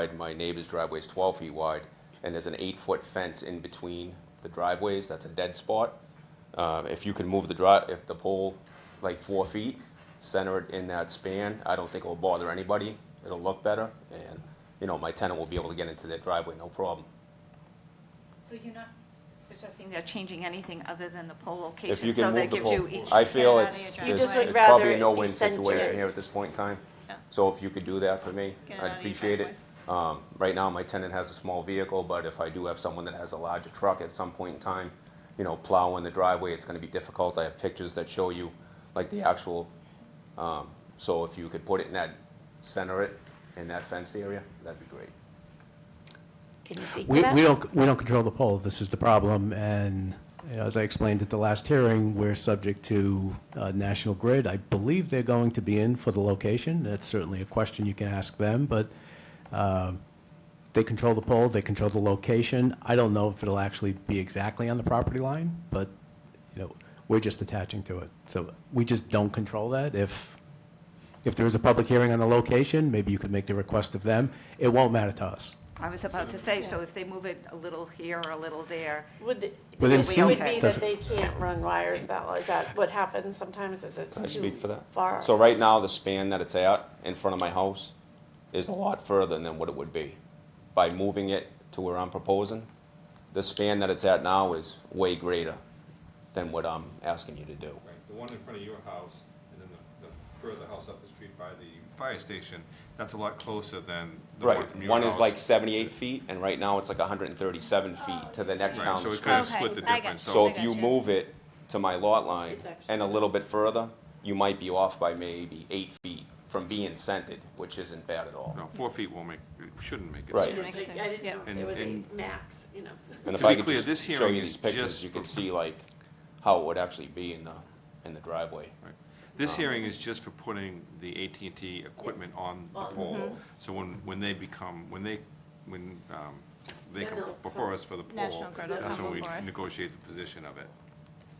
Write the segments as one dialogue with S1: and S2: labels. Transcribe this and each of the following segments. S1: wide, my neighbor's driveway is twelve feet wide, and there's an eight-foot fence in between the driveways, that's a dead spot. Um, if you can move the dri, if the pole like four feet, center it in that span, I don't think it'll bother anybody, it'll look better, and, you know, my tenant will be able to get into their driveway, no problem.
S2: So you're not suggesting they're changing anything other than the pole
S1: If
S2: location,
S1: you
S2: so
S1: can move
S2: that
S1: the
S2: gives
S1: pole,
S2: you each.
S1: I feel it's,
S2: You
S1: it's
S2: just
S1: it's
S2: would
S3: rather
S1: probably a
S3: it
S1: no-win
S3: be centered.
S1: situation here at this point in time.
S2: Yeah.
S1: So if you could do that for me,
S2: Get it out of
S1: I'd
S2: your
S1: appreciate it. Um, right now, my tenant has a small vehicle, but if I do have someone that has a larger truck at some point in time, you know, plowing the driveway, it's gonna be difficult. I have pictures that show you, like, the actual, um, so if you could put it in that, center it in that fenced area, that'd be great.
S3: Can you speak to
S4: We,
S3: that?
S4: we don't, we don't control the poll, this is the problem, and you know, as I explained at the last hearing, we're subject to uh, National Grid. I believe they're going to be in for the location, that's certainly a question you can ask them, but um, they control the poll, they control the location. I don't know if it'll actually be exactly on the property line, but, you know, we're just attaching to it. So we just don't control that. If, if there is a public hearing on the location, maybe you could make the request of them. It won't matter to us.
S2: I was about to say, so if they move it a little here or a little there,
S3: Would, the
S4: Within
S3: issue would
S2: feet,
S3: be that
S4: doesn't-
S3: they can't run wires that, is that what happens sometimes is
S1: Can I
S3: it's too
S1: speak for that?
S3: far?
S1: So right now, the span that it's at in front of my house is a lot further than what it would be. By moving it to where I'm proposing, the span that it's at now is way greater than what I'm asking you to do.
S5: Right, the one in front of your house, and then the, the further house up the street by the fire station, that's a lot closer than the one
S1: Right,
S5: from your
S1: one
S5: house.
S1: is like seventy-eight feet, and right now it's like hundred and thirty-seven feet to the next
S5: Right,
S1: town.
S5: so it kind of
S6: Okay,
S5: split the
S6: I got
S5: difference,
S6: you.
S5: so.
S1: So if you
S6: gotcha.
S1: move it to my lot line
S3: It's actually-
S1: and a little bit further, you might be off by maybe eight feet from being centered, which isn't bad at all.
S5: No, four feet won't make, it shouldn't make it.
S1: Right.
S3: I
S2: Next
S3: didn't
S2: time, yeah.
S3: know if there was a
S5: And-
S3: max, you know.
S1: And if
S5: To be
S1: I could
S5: clear,
S1: just
S5: this
S1: show
S5: hearing
S1: you
S5: is
S1: these pictures,
S5: just
S1: you
S5: for-
S1: can see like how it would actually be in the, in the driveway.
S5: Right. This hearing is just for putting the AT&T equipment on the
S3: On.
S6: Mm-hmm.
S5: pole. So when, when they become, when they, when, um, they
S3: Then
S5: come
S3: they'll-
S5: before us for the pole,
S6: National Grid will
S5: that's
S6: come
S5: when we
S6: before us.
S5: negotiate the position of it.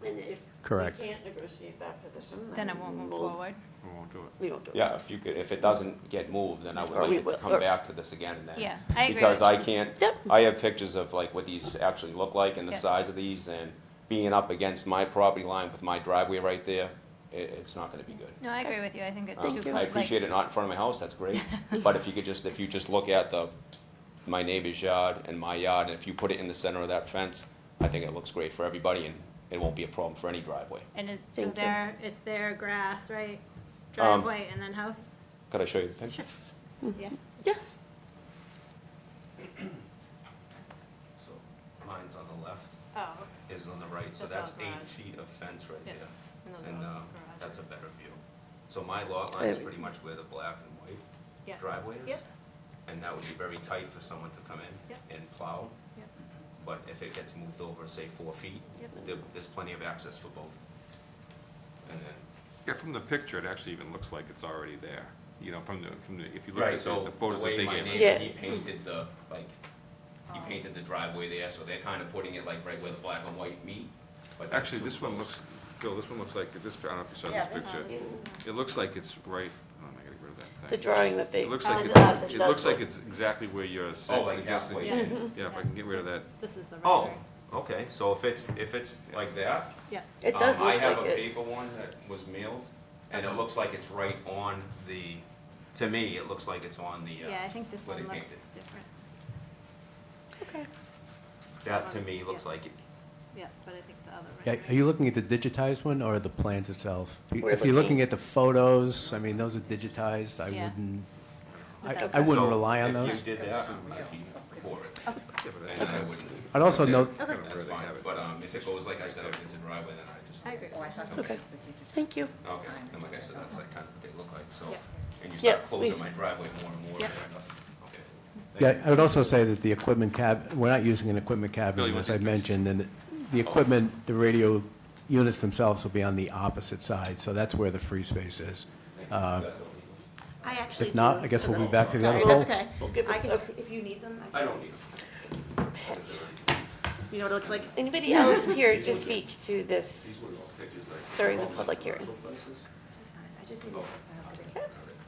S3: And if
S4: Correct.
S3: we can't negotiate that position,
S6: Then it won't move
S3: we'll-
S6: forward.
S5: We won't do it.
S3: We won't do it.
S1: Yeah, if you could, if it doesn't get moved, then I would
S3: Or
S1: like
S3: we
S1: it to
S3: will-
S1: come
S3: or-
S1: back to this again and then.
S6: Yeah, I agree
S1: Because
S6: with
S1: I
S6: you.
S1: can't,
S3: Yep.
S1: I have pictures of like what these actually look like and the
S6: Yeah.
S1: size of these and being up against my property line with my driveway right there, it, it's not gonna be good.
S6: No, I agree with you. I think it's
S1: Um,
S6: too.
S1: I appreciate it not in front of my house, that's great, but if you could just, if you just look at the, my neighbor's yard and my yard, and if you put it in the center of that fence, I think it looks great for everybody, and it won't be a problem for any driveway.
S6: And it's,
S3: Thank
S6: so
S3: you.
S6: there, it's their grass, right?
S1: Um,
S6: Driveway and then house?
S1: Could I show you the picture?
S6: Yeah.
S3: Yeah,
S1: So, mine's on the left,
S6: Oh,
S1: is on the right, so
S6: That's
S1: that's
S6: our
S1: eight
S6: garage.
S1: feet of fence right
S6: Yeah, and
S1: there.
S6: those
S1: And,
S6: are all
S1: um,
S6: garage.
S1: that's a better view. So my lot line is
S3: There we-
S1: pretty much where the black and
S6: Yeah.
S1: white driveway is.
S6: Yep.
S1: And that would be very tight for someone to come in
S6: Yep.
S1: and plow.
S6: Yep.
S1: But if it gets moved over, say, four feet,
S6: Yep.
S1: there- there's plenty of access for both. And then,
S5: Yeah, from the picture, it actually even looks like it's already there, you know, from the, from the, if you look
S1: right,
S5: at
S1: so
S5: the- the
S1: the
S5: photos that
S1: way
S5: they
S1: my
S5: gave us.
S1: neighbor,
S3: Yeah.
S1: he painted the, like, he
S6: Oh.
S1: painted the driveway there, so they're kind of putting it like right where the black and white meet. but that's
S5: Actually,
S1: too
S5: this one
S1: close.
S5: looks, Bill, this one looks like, this, I don't know if you saw
S2: Yeah,
S5: this
S2: this
S5: picture. It looks like it's right, oh, I gotta get rid of that
S3: the
S5: thing.
S3: drawing that they.
S5: It looks
S3: Oh,
S5: like,
S3: it
S5: it's-
S3: does,
S5: it looks
S3: does
S5: like
S3: look-
S5: it's exactly where you're
S1: Oh, like
S5: suggesting.
S1: halfway.
S6: Yeah. Mhm.
S5: Yeah, if I can get rid of that.
S6: this is the right.
S1: Oh, okay, so if it's, if it's like that.
S6: Yeah.
S3: It does
S1: um, I
S3: look
S1: have a
S3: like it.
S1: paper one that was mailed, and it looks like it's right on the, to me, it looks like it's on the, uh.
S6: Yeah, I think this
S1: where
S6: one
S1: they
S6: looks
S1: painted.
S6: different.
S1: That to me looks
S6: Yeah.
S1: like it.
S6: Yeah, but I think the other.
S4: Yeah, Are you looking at the digitized one or the plans itself?
S3: We're
S4: If you're looking
S3: looking-
S4: at the photos, I mean, those are digitized, I
S6: Yeah.
S4: wouldn't, I-
S6: Without
S4: I wouldn't
S1: So
S4: rely on
S1: If
S4: those.
S1: you did that, I'd be for it,
S5: Yeah, but I-
S1: and I wouldn't,
S4: I'd also
S5: Yeah,
S4: note,
S5: I don't know where
S1: that's
S5: they
S1: fine,
S5: have it.
S1: but, um, if it goes like I said, if it's a driveway, then I just.
S6: I agree.
S2: Oh, I thought
S3: Okay. Thank you.
S1: Okay, and like I said, that's like kind of what they look like, so,
S6: Yeah.
S1: and you
S3: Yeah,
S1: start closing
S3: please.
S1: my driveway more and more.
S6: Yeah.
S1: Okay.
S4: yeah, I would also say that the equipment cab, we're not using an equipment
S5: Bill,
S4: cabinet,
S5: you want
S4: as I
S5: these pictures?
S4: mentioned, and
S1: Oh.
S4: the equipment, the radio units themselves will be on the opposite side, so that's where the free space is. Uh,
S7: I actually
S4: If not,
S7: do.
S4: I guess we'll be back to the other
S7: Sorry,
S4: poll.
S7: that's okay.
S3: give
S7: I
S3: it
S7: can
S3: a-
S7: just, if you need them, I
S1: I
S7: can-
S1: don't need them.
S7: you know what it looks like?
S3: Anybody else here to speak to this
S1: These were all pictures that I-
S3: during the public hearing?
S1: places.
S7: This is fine. I just need.
S1: Oh.
S7: to-
S1: All right.